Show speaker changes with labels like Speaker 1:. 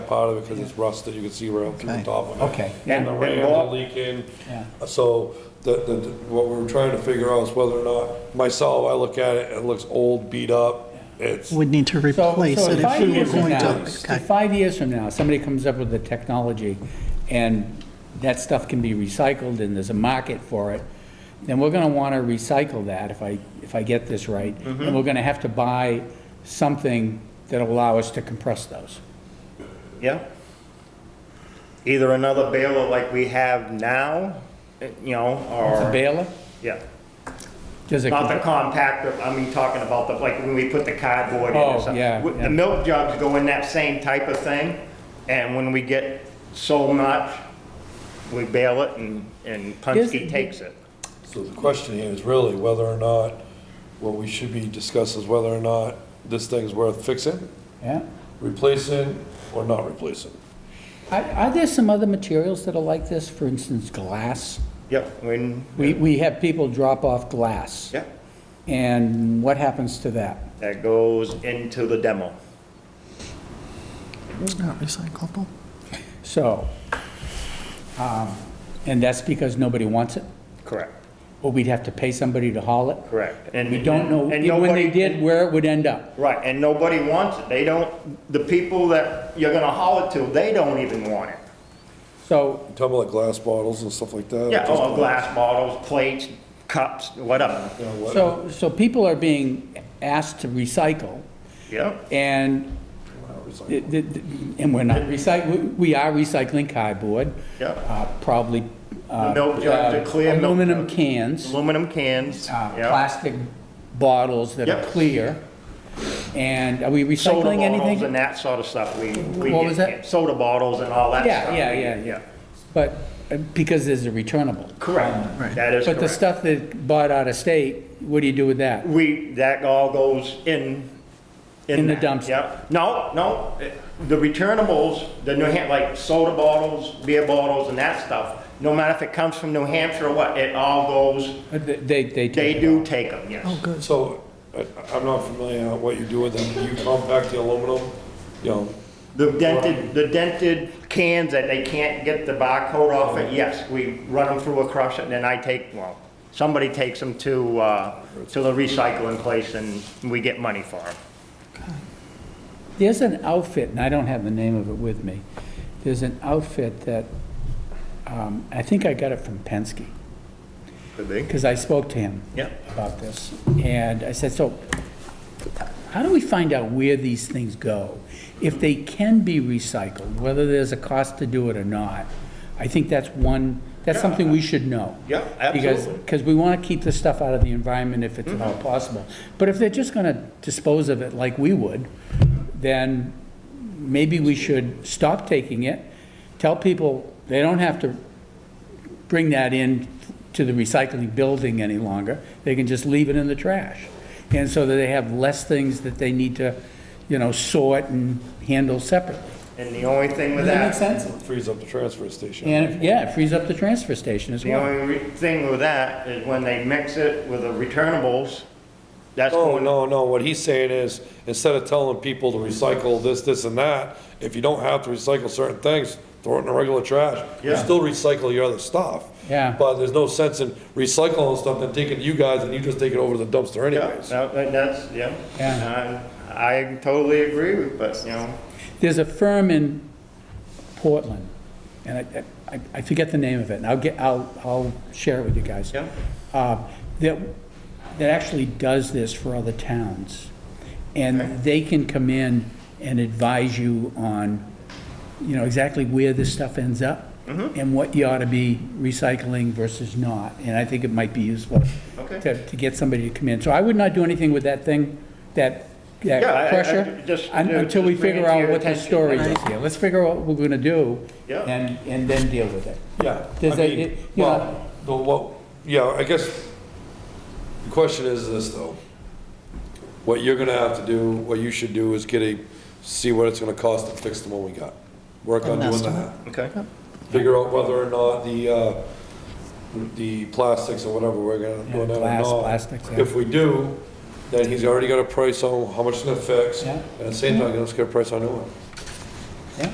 Speaker 1: part of it because it's rusted, you can see right through the
Speaker 2: Okay.
Speaker 1: top of it.
Speaker 2: Okay.
Speaker 1: And the
Speaker 3: And- and
Speaker 1: rain are
Speaker 3: Bob-
Speaker 1: leaking.
Speaker 2: Yeah.
Speaker 1: So the, the, what we're trying to figure out is whether or not, myself, I look at it, it looks old, beat up. It's,
Speaker 4: We'd need to replace
Speaker 3: So- so
Speaker 4: it if
Speaker 3: five
Speaker 4: we were
Speaker 3: years from
Speaker 4: going
Speaker 3: now-
Speaker 4: to.
Speaker 3: so
Speaker 4: Okay.
Speaker 3: Five years from now, somebody comes up with the technology, and that stuff can be recycled, and there's a market for it, then we're gonna wanna recycle that, if I, if I get this right. And we're gonna have to buy something that'll allow us to compress those.
Speaker 5: Yeah. Either another baler like we have now, eh, you know,
Speaker 3: The
Speaker 5: or,
Speaker 3: baler,
Speaker 5: yeah.
Speaker 3: does it,
Speaker 5: Not the compactor, I mean, talking about the, like, when we put the cardboard in
Speaker 3: Oh,
Speaker 5: or something.
Speaker 3: yeah,
Speaker 5: W-
Speaker 3: yeah.
Speaker 5: The milk jugs go in that same type of thing, and when we get so much, we bale it and, and Punske
Speaker 3: Does-
Speaker 5: takes it.
Speaker 1: so the question here is really whether or not, what we should be discussing is whether or not this thing's worth fixing,
Speaker 3: yeah?
Speaker 1: replacing, or not replacing.
Speaker 3: Are, are there some other materials that are like this, for instance, glass?
Speaker 5: Yep, when,
Speaker 3: We, we have people drop off glass.
Speaker 5: yep,
Speaker 3: And what happens to that?
Speaker 5: that goes into the demo.
Speaker 4: It's not recyclable.
Speaker 3: So, um, and that's because nobody wants it,
Speaker 5: Correct,
Speaker 3: or we'd have to pay somebody to haul it?
Speaker 5: correct.
Speaker 3: We don't know,
Speaker 5: and
Speaker 3: when they
Speaker 5: nobody-
Speaker 3: did, where it would end up.
Speaker 5: Right, and nobody wants it. They don't, the people that you're gonna haul it to, they don't even want it.
Speaker 3: So,
Speaker 1: Talking about glass bottles and stuff like that.
Speaker 5: Yeah,
Speaker 1: just-
Speaker 5: oh, glass bottles, plates, cups, whatever.
Speaker 1: You know, what-
Speaker 3: so, so people are being asked to recycle,
Speaker 5: Yeah,
Speaker 3: and, it- it- and we're not recycling, we are recycling cardboard.
Speaker 5: Yep.
Speaker 3: uh, Probably. uh,
Speaker 5: Milk jug, the clear milk
Speaker 3: Aluminum
Speaker 5: jug.
Speaker 3: cans.
Speaker 5: aluminum cans,
Speaker 3: uh,
Speaker 5: yeah.
Speaker 3: plastic bottles that are
Speaker 5: Yep.
Speaker 3: clear. And are we
Speaker 5: Soda
Speaker 3: recycling
Speaker 5: bottles and
Speaker 3: anything?
Speaker 5: that sort of stuff we, we
Speaker 3: What was
Speaker 5: get.
Speaker 3: that?
Speaker 5: Soda bottles and all that
Speaker 3: Yeah,
Speaker 5: stuff.
Speaker 3: yeah, yeah, yeah. But, uh, because there's a returnable.
Speaker 5: Correct, that is
Speaker 3: But the
Speaker 5: correct.
Speaker 3: stuff that bought out of state, what do you do with that?
Speaker 5: We, that all goes in.
Speaker 3: In the
Speaker 5: that,
Speaker 3: dumpster.
Speaker 5: Yep. No, no, the returnables, the New Ham, like soda bottles, beer bottles and that stuff, no matter if it comes from New Hampshire or what, it all goes,
Speaker 3: Uh, They, they take
Speaker 5: they
Speaker 3: it.
Speaker 5: do take them, yes.
Speaker 4: Oh, good.
Speaker 1: So, I, I'm not familiar with what you do with them. Do you compact the aluminum? You know,
Speaker 5: The dented, the dented cans that they can't get the barcode off it, yes, we run them through a crusher, and then I take, well, somebody takes them to, uh, to the recycling place and we get money for them.
Speaker 3: There's an outfit, and I don't have the name of it with me. There's an outfit that, um, I think I got it from Penske,
Speaker 5: Could be.
Speaker 3: because I spoke to him.
Speaker 5: Yeah.
Speaker 3: About this, and I said, so, how do we find out where these things go? If they can be recycled, whether there's a cost to do it or not, I think that's one, that's something we should know.
Speaker 5: Yeah,
Speaker 3: Because,
Speaker 5: absolutely. Mm-hmm.
Speaker 3: because we want to keep the stuff out of the environment if it's at all possible. But if they're just going to dispose of it like we would, then maybe we should stop taking it, tell people they don't have to bring that in to the recycling building any longer. They can just leave it in the trash. And so that they have less things that they need to, you know, sort and handle separately.
Speaker 5: And the only thing with
Speaker 3: Does that make
Speaker 5: that,
Speaker 3: sense?
Speaker 1: frees up the transfer station.
Speaker 3: And, if- yeah, it frees up the transfer station as
Speaker 5: the
Speaker 3: well.
Speaker 5: only re- thing with that is when they mix it with the returnables, that's
Speaker 1: Oh, No,
Speaker 5: going,
Speaker 1: no, no, what he's saying is, instead of telling people to recycle this, this, and that, if you don't have to recycle certain things, throw it in the regular trash. You
Speaker 5: Yeah.
Speaker 1: still recycle your other stuff.
Speaker 3: Yeah.
Speaker 1: But there's no sense in recycling stuff and taking you guys and you just take it over to the dumpster
Speaker 5: yeah,
Speaker 1: anyways.
Speaker 5: no, that- that's, yeah.
Speaker 3: Yeah.
Speaker 5: Uh, I totally agree with, but, you know,
Speaker 3: There's a firm in Portland, and I- I, I forget the name of it, and I'll get, I'll, I'll share it with you guys.
Speaker 5: Yeah.
Speaker 3: Uh, That, that actually does this for other towns. And they can come in and advise you on, you know, exactly where this stuff ends up
Speaker 5: Mm-hmm.
Speaker 3: and what you ought to be recycling versus not. And I think it might be useful
Speaker 5: Okay.
Speaker 3: to, to get somebody to come in. So I would not do anything with that thing, that, that
Speaker 5: Yeah, I- I-
Speaker 3: crusher,
Speaker 5: just-
Speaker 3: un-
Speaker 5: just
Speaker 3: until we
Speaker 5: bring it
Speaker 3: figure
Speaker 5: to
Speaker 3: out
Speaker 5: your
Speaker 3: what the
Speaker 5: attention.
Speaker 3: story is here. Let's figure out what we're gonna do
Speaker 5: Yeah.
Speaker 3: and, and then deal with it.
Speaker 1: Yeah.
Speaker 3: Does
Speaker 1: I
Speaker 3: that-
Speaker 1: mean,
Speaker 3: it- you know-
Speaker 1: Well, the, what, yeah, I guess, the question is this, though. What you're gonna have to do, what you should do is get a, see what it's gonna cost to fix the one we got. Work on
Speaker 4: An
Speaker 1: doing
Speaker 4: estimate.
Speaker 1: that.
Speaker 5: okay.
Speaker 1: figure out whether or not the, uh, the plastics or whatever we're gonna
Speaker 3: Yeah,
Speaker 1: go down or
Speaker 3: glass,
Speaker 1: not.
Speaker 3: plastics, yeah.
Speaker 1: If we do, then he's already got a price on how much it's gonna fix,
Speaker 3: Yeah.
Speaker 1: and at the same time, he's gonna get a price on new one.